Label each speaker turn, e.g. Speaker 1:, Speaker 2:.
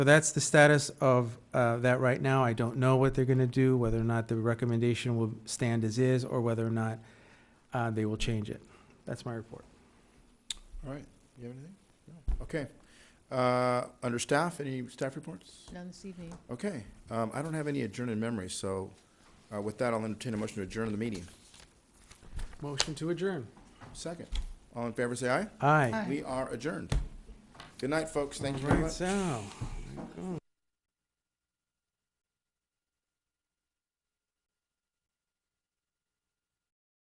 Speaker 1: So that's the status of uh, that right now. I don't know what they're going to do, whether or not the recommendation will stand as is, or whether or not uh, they will change it. That's my report.
Speaker 2: All right, you have anything? No. Okay. Uh, Under staff, any staff reports?
Speaker 3: None this evening.
Speaker 2: Okay, um, I don't have any adjourned in memory, so uh, with that, I'll entertain a motion to adjourn the meeting.
Speaker 1: Motion to adjourn.
Speaker 2: Second, all in favor, say aye.
Speaker 1: Aye.
Speaker 2: We are adjourned. Good night, folks, thank you very
Speaker 1: Right,
Speaker 2: much.
Speaker 1: so.